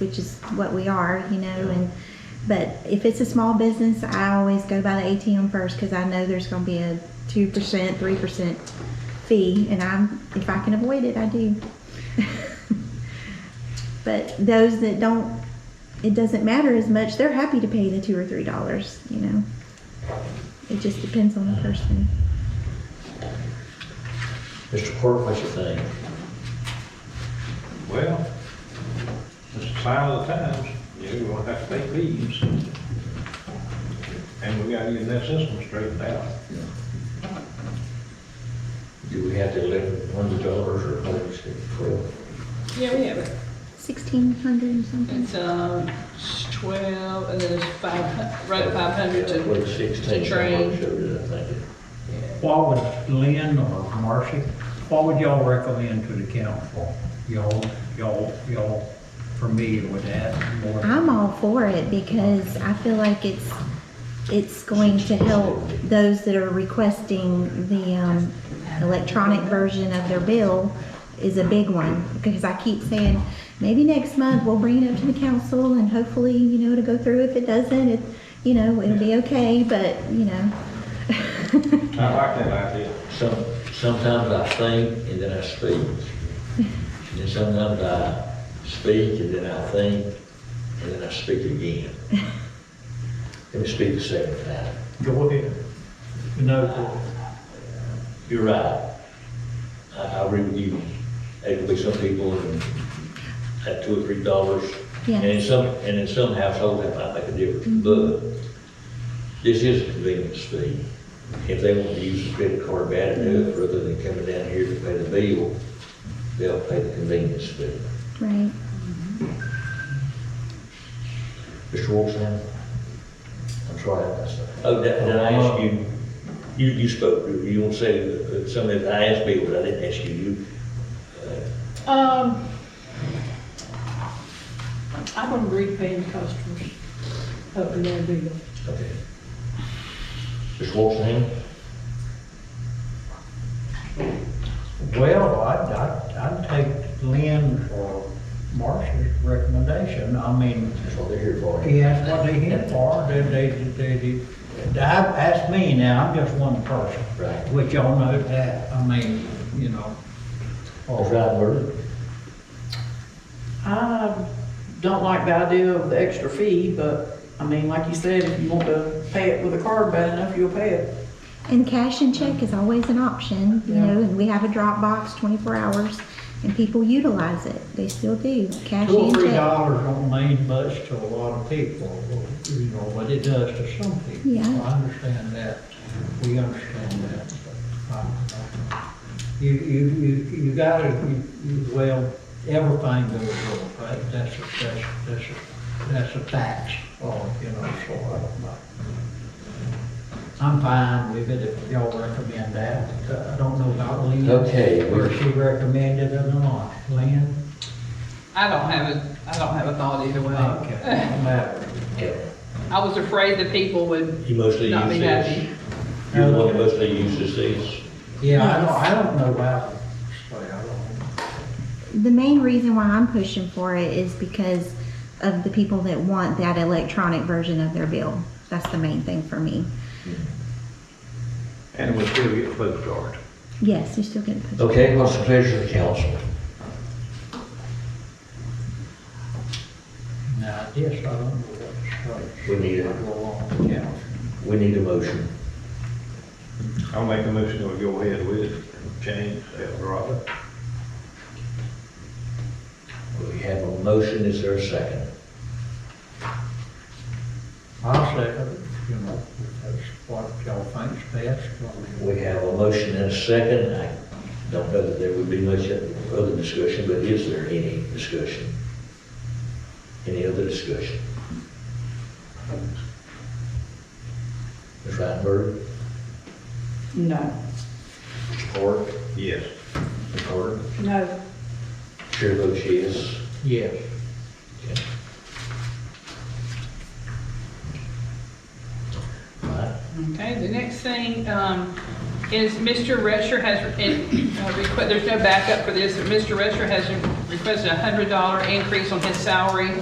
which is what we are, you know, and, but if it's a small business, I always go by the ATM first because I know there's going to be a 2%, 3% fee, and I'm, if I can avoid it, I do. but those that don't, it doesn't matter as much, they're happy to pay the two or three dollars, you know. It just depends on the person. Mr. Quirk, what you think? Well, it's a sign of the times, you're gonna have to take leaves. And we gotta get that system straightened out. Do we have the eleven hundred dollars or what is it twelve? Yeah, we have it. Sixteen hundred and something. It's, um, it's twelve, and then it's five, hu- right, five hundred Yeah, to, Well, sixteen, someone to train. showed it, I think. What would Lynn or Marcy, what would y'all recommend to the council? Y'all, y'all, y'all familiar with that more? I'm all for it because I feel like it's, it's going to help those that are requesting the, um, electronic version of their bill is a big one. Because I keep saying, maybe next month we'll bring it up to the council and hopefully, you know, it'll go through. If it doesn't, it, you know, it'll be okay, but, you know. I like that idea. Some, sometimes I think and then I speak. And then sometimes I speak and then I think, and then I speak again. Let me speak the second time. Go ahead. No. You're right. I, I agree with you. There could be some people and at two or three dollars. Yeah. And in some, and in some households, that might make a difference, but this is a convenience fee. If they want to use a credit card bad enough, rather than coming down here to pay the bill, they'll pay the convenience fee. Right. Mr. Wolfson? I'm sorry, I messed up. Oh, did, did I ask you, you, you spoke, you want to say that something that I asked people, but I didn't ask you, you, uh, Um, I wouldn't be paying customers up in their bill. Okay. Mr. Wolfson? Well, I'd, I'd, I'd take Lynn or Marcy's recommendation. I mean, That's what they're here for. he asked what they here for, they, they, they, they, that- that's me now, I'm just one person. Right. Which y'all know that, I mean, you know. All right, Bert. I don't like the idea of the extra fee, but, I mean, like you said, if you want to pay it with a card bad enough, you'll pay it. And cash and check is always an option, you Yeah. know, and we have a drop box twenty-four hours and people utilize it. They still do, cash Two or and three check. dollars don't mean much to a lot of people, you know, but it does to some people. Yeah. I understand that, we understand that. but I- I- You, you, you, you gotta, you, you- well, everything goes up, right? That's, a- that's, that's, a- that's a tax, or, you know, so I don't know. I'm fine with it if y'all recommend that, uh, I don't know about Lynn. Okay, we- Where she recommended it or not, Lynn? I don't have a, I don't have a thought either Okay, way. no matter. Yeah. I was afraid that people would You mostly not use be happy. this? You're the one that mostly uses these? Yeah, I don't, I don't know about, sorry, I don't. The main reason why I'm pushing for it is because of the people that want that electronic version of their bill. That's the main thing for me. And we still get food card. Yes, you're still getting. pushed. Okay, what's the pleasure of the council? Now, this, I don't know what it's. We need it. Go along, yeah. We need a motion. I'll make a motion to go ahead with it and change Eldorado. We have a motion, is there a second? I'll say, you know, if that's what y'all think's best. I mean, We have a motion and a second. I don't know that there would be much other discussion, but is there any discussion? Any other discussion? Ms. Reitenberg, No. Mr. Park, Yes. Ms. Carter, No. Chair votes yes. Yes, Right. Okay, the next thing, um, is Mr. Rescher has, and, uh, requ- there's no backup for this, but Mr. Rescher has requested a hundred dollar increase on his salary